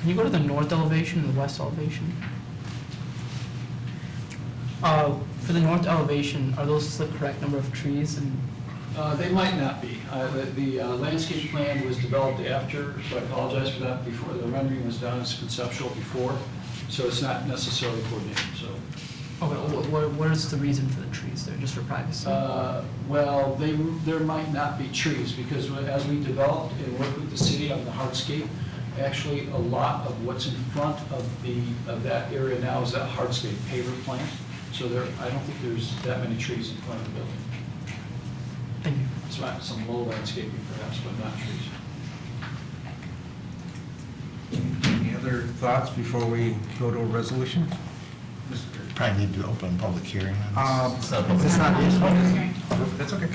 Can you go to the north elevation and the west elevation? Uh, For the north elevation, are those the correct number of trees and, Uh, They might not be. Uh, the- The uh, landscape plan was developed after, so I apologize for that, before the rendering was done, it's conceptual before, so it's not necessarily coordinated, so. okay, wh- wh- what is the reason for the trees there, just for privacy? uh, Well, they, there might not be trees, because as we developed and worked with the city on the hardscape, actually, a lot of what's in front of the, of that area now is that hardscape paver plant, so there, I don't think there's that many trees in front of the building. Thank you. It's not some low landscaping perhaps, but not trees. Any other thoughts before we go to a resolution? Probably need to open public hearing on Um, this. It's So, not, it's that's okay.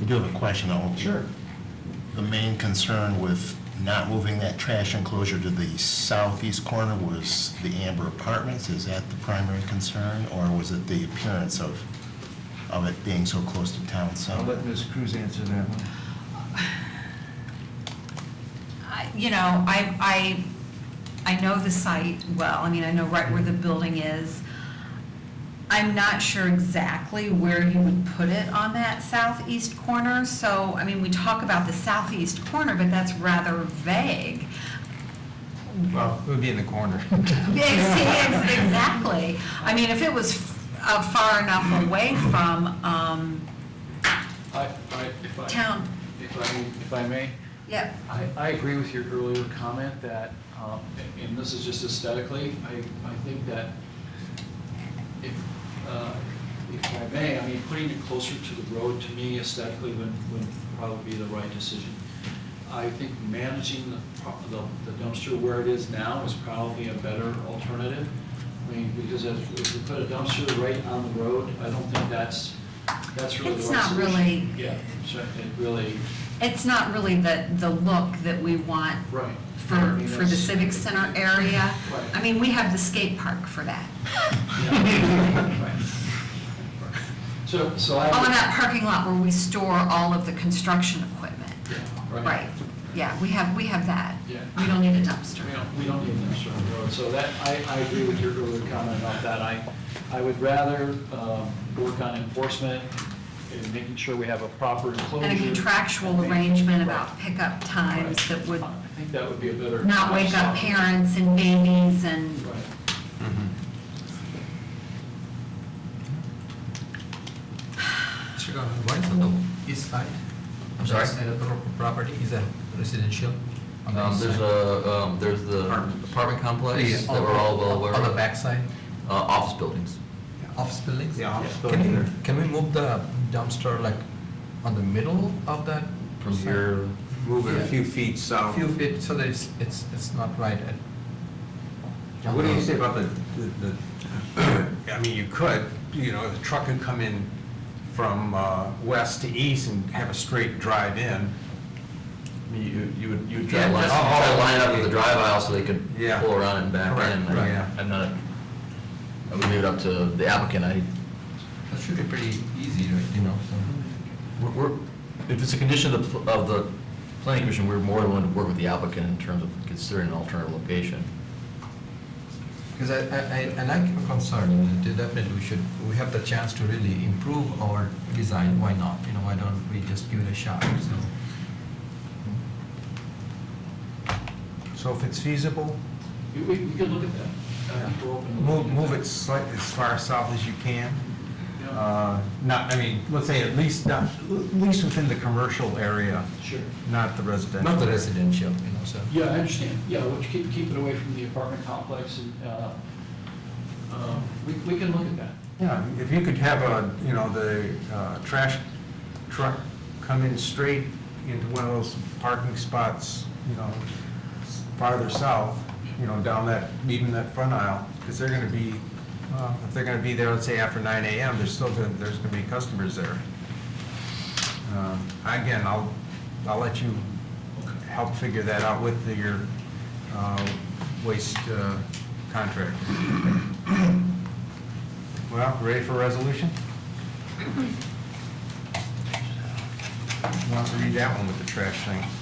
I do have a question, though. The main concern with not moving that trash enclosure to the southeast corner was the Amber Apartments. Is that the primary concern, or was it the appearance of, of it being so close to town I'll center? let Ms. Cruz answer that one. I- You know, I, I, I know the site well, I mean, I know right where the building is. I'm not sure exactly where you would put it on that southeast corner, so, I mean, we talk about the southeast corner, but that's rather vague. Well, it would be in the corner. Ex- ex- Exactly. I mean, if it was f- uh, far enough away from, um, I, I, if I. Town. If I, if I may, yeah, I, I agree with your earlier comment that, um, and this is just aesthetically, I, I think that if, uh, if I may, I mean, putting it closer to the road, to me aesthetically, would, would probably be the right decision. I think managing the pro- the- the dumpster where it is now is probably a better alternative. I mean, because if if you put a dumpster right on the road, I don't think that's, that's really the It's right not solution. really- Yeah, so it really, it's not really the, the look that we want right. I for, mean, for the that's- civic center area. Right. I mean, we have the skate park for that. Yeah. Right. So, so I. Oh, and that parking lot where we store all of the construction equipment. Yeah, Right, yeah, we have, we have that. Yeah. We don't need a So dumpster. We don't, we don't need an extra road, so that, I, I agree with your earlier comment about that. I, I would rather um, work on enforcement and making sure we have a proper enclosure. And a contractual and- arrangement about pickup times Right. that would I think that would be a better. not wake up parents and babies and, Right. Sure, uh, What is on the east side? I'm sorry? East side of the pro- property, is that residential? on the Um, east There's side? a, um, there's the Apartments. apartment complex Yeah, that we're all well aware of. On the back side, Uh, Office buildings. office buildings? Yeah, office Can buildings we- there. Can we move the dumpster like on the middle of that? From side? here, Move it Yeah. a few feet A south. few feet, so that it's, it's, it's not right at. What do you say about the, the, the- I mean, you could, you know, the truck could come in from uh, west to east and have a straight drive in. I mean, you, you would, you would Yeah, try to line, just- try to line up with the drive aisle so they could Yeah. pull around and back Correct, in. right, I- yeah. I'm not, I would leave it up to the applicant, I, That should be pretty easy, right, you know, so. we're- we're, if it's a condition of the, pl- of the planning commission, we're more than willing to work with the applicant in terms of considering an alternative location. Because I, I- I, I like your concern, and de- definitely we should, we have the chance to really improve our design, why not? You know, why don't we just give it a shot, so. So if it's feasible, We, we we could look at that. I think we're open to move, looking at move that. it slightly as far south as you can. Yeah. Uh, Not, I mean, let's say at least, not, at least within the commercial area, Sure. not the residential. Not the residential, you know, so. Yeah, I understand. Yeah, which keep, keep it away from the apartment complex and, uh, um, we, we can look at that. Yeah, if you could have a, you know, the uh, trash truck come in straight into one of those parking spots, you know, s- farther south, you know, down that, even that front aisle, because they're going to be, uh, if they're going to be there, let's say after 9 AM, there's still, gonna- there's going to be customers there. Um, Again, I'll, I'll let you help figure that out with the- your uh, waste uh, contract. Well, ready for resolution? Want to read that one with the trash thing?